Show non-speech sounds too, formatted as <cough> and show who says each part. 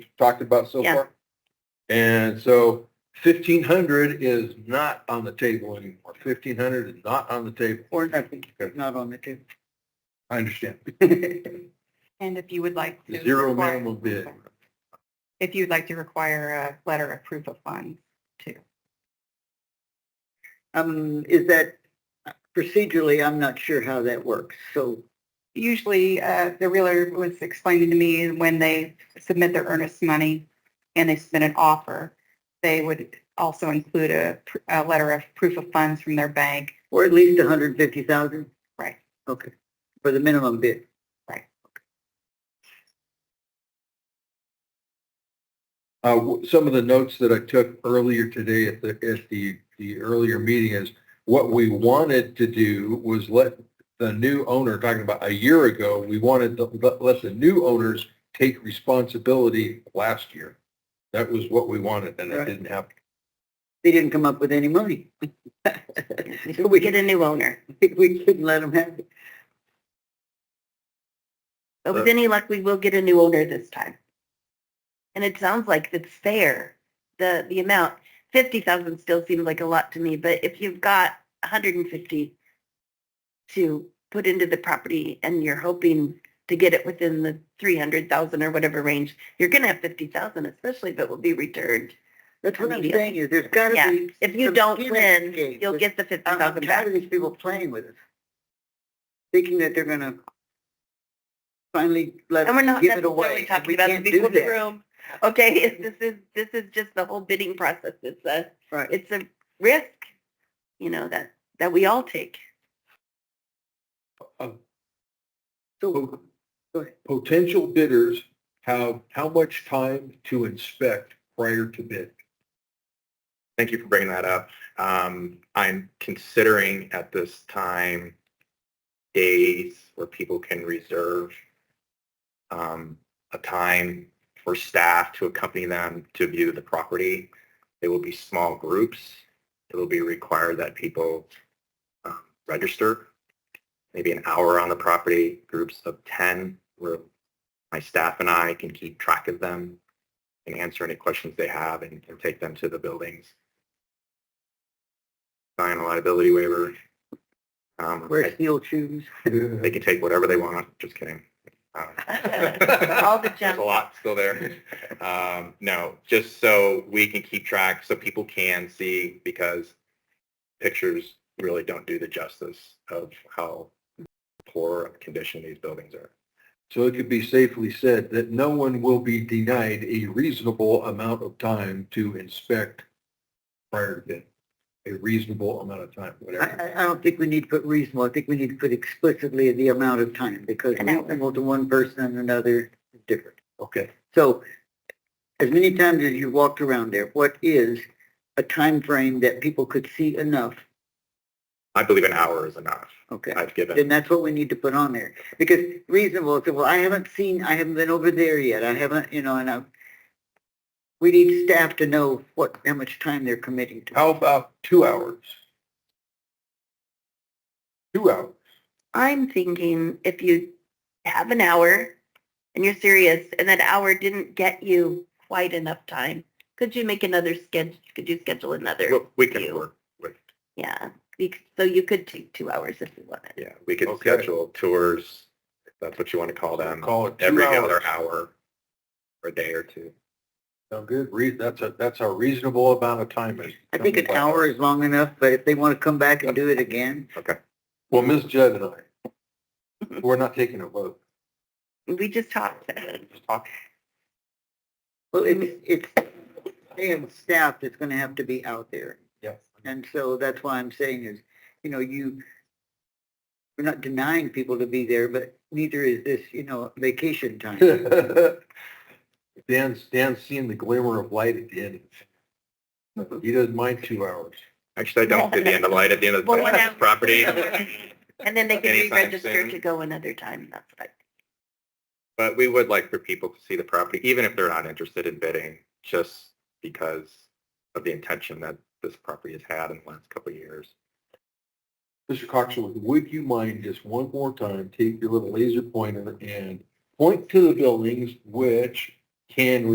Speaker 1: talked about so
Speaker 2: Yeah.
Speaker 1: far. And so fifteen hundred is not on the table anymore. Fifteen hundred is not on the table.
Speaker 3: Or nothing, not on the table.
Speaker 1: I
Speaker 3: <laughs>
Speaker 1: understand.
Speaker 2: And if you would like to.
Speaker 1: Zero
Speaker 2: require-
Speaker 1: minimum bid.
Speaker 2: If you'd like to require a letter of proof of funds too.
Speaker 3: Um, is that procedurally, I'm not sure how that works. So,
Speaker 2: Usually, uh, the realtor was explaining to me when they submit their earnest money and they submit an offer, they would also include a, pr- a letter of proof of funds from their bank.
Speaker 3: or at least 150,000?
Speaker 2: Right.
Speaker 3: Okay, for the minimum bid.
Speaker 1: Uh, w- some of the notes that I took earlier today at the, at the, the earlier meeting is what we wanted to do was let the new owner, talking about a year ago, we wanted to let, let the new owners take responsibility last year. That was what we wanted and it
Speaker 3: Right.
Speaker 1: didn't happen.
Speaker 3: They didn't come up with
Speaker 4: <laughs>
Speaker 3: any money. We
Speaker 4: get a new owner.
Speaker 3: <laughs> we couldn't let them have it.
Speaker 4: But with any luck, we will get a new owner this time. And it sounds like it's fair, the, the amount. Fifty thousand still seems like a lot to me, but if you've got a hundred and fifty to put into the property and you're hoping to get it within the three hundred thousand or whatever range, you're gonna have fifty thousand, especially if it will be returned.
Speaker 3: That's what I'm
Speaker 4: Immediate.
Speaker 3: saying is there's got
Speaker 4: Yeah.
Speaker 3: to be.
Speaker 4: If you
Speaker 3: some
Speaker 4: don't
Speaker 3: skin in
Speaker 4: win,
Speaker 3: the game.
Speaker 4: you'll get the fifty
Speaker 3: I'm
Speaker 4: thousand
Speaker 3: tired
Speaker 4: back.
Speaker 3: of these people playing with us, thinking that they're gonna finally let
Speaker 4: And we're
Speaker 3: us
Speaker 4: not
Speaker 3: give it
Speaker 4: necessarily
Speaker 3: away.
Speaker 4: talking
Speaker 3: We
Speaker 4: about the
Speaker 3: can't
Speaker 4: people
Speaker 3: do
Speaker 4: in the
Speaker 3: that.
Speaker 4: room. Okay, <laughs> this is, this is just the whole bidding process. It's a,
Speaker 3: Right.
Speaker 4: it's a risk, you know, that, that we all take. <laughs>
Speaker 3: So, go ahead.
Speaker 1: Potential bidders have how much time to inspect prior to bid?
Speaker 5: Thank you for bringing that up. Um, I'm considering at this time days where people can reserve um, a time for staff to accompany them to view the property. They will be small groups. It will be required that people um, register, maybe an hour on the property, groups of 10, where my staff and I can keep track of them and answer any questions they have and, and take them to the buildings sign a liability waiver. Um,
Speaker 3: Wear
Speaker 5: I-
Speaker 3: steel shoes.
Speaker 5: <laughs> they can take whatever they want, just kidding. Uh, Um, <laughs>
Speaker 4: All the
Speaker 5: There's
Speaker 4: junk.
Speaker 5: a lot still there.
Speaker 1: <laughs>
Speaker 5: Um, no, just so we can keep track, so people can see, because pictures really don't do the justice of how poor of condition these buildings are.
Speaker 1: So it could be safely said that no one will be denied a reasonable amount of time to inspect prior to bid. A reasonable amount of time,
Speaker 3: I,
Speaker 1: whatever.
Speaker 3: I, I don't think we need to put reasonable, I think we need to put explicitly the amount of time, because
Speaker 4: An hour.
Speaker 3: reasonable to one person and another is different.
Speaker 1: Okay.
Speaker 3: So, as many times as you've walked around there, what is a time frame that people could see enough?
Speaker 5: I believe an hour is enough.
Speaker 3: Okay.
Speaker 5: I've given,
Speaker 3: then that's what we need to put on there. Because reasonable, so, well, I haven't seen, I haven't been over there yet, I haven't, you know, and I, we need staff to know what, how much time they're committing to.
Speaker 1: How about two hours? Two hours.
Speaker 4: I'm thinking if you have an hour and you're serious and that hour didn't get you quite enough time, could you make another schedule? Could you schedule another?
Speaker 5: we- we can
Speaker 4: You.
Speaker 5: work with,
Speaker 4: Yeah. You c- So you could take two hours if you wanted.
Speaker 5: yeah, we can
Speaker 1: Okay.
Speaker 5: schedule tours, if that's what you want to call them,
Speaker 1: Call it two
Speaker 5: every
Speaker 1: hours.
Speaker 5: other hour, or a day or two.
Speaker 1: Sound good? Re, that's a, that's a reasonable amount of time. is-
Speaker 3: I think an hour is long enough, but if they want to come back and do it again,
Speaker 1: Well, Ms. Judd and I, <laughs> we're not taking a vote.
Speaker 4: We just talked.
Speaker 1: Just talk.
Speaker 3: well, it's, it's, they have staff that's gonna have to be out there.
Speaker 1: Yeah.
Speaker 3: And so that's why I'm saying is, you know, you, we're not denying people to be there, but neither is this, you know, vacation
Speaker 1: <laughs>
Speaker 3: time.
Speaker 1: Dan's, Dan's seen the glimmer of light at the end. of it. He doesn't mind two hours.
Speaker 5: Actually, I don't do the end of light at the end of
Speaker 4: Well,
Speaker 5: <laughs>
Speaker 4: when
Speaker 5: the
Speaker 4: I'm-
Speaker 5: property.
Speaker 4: And then they can
Speaker 5: Anytime
Speaker 4: re-register
Speaker 5: soon.
Speaker 4: to go another time. That's what I
Speaker 5: But we would like for people to see the property, even if they're not interested in bidding, just because of the intention that this property has had in the last couple of years.
Speaker 1: Mr. Coxell, would you mind just one more time, take your little laser pointer and point to the buildings which can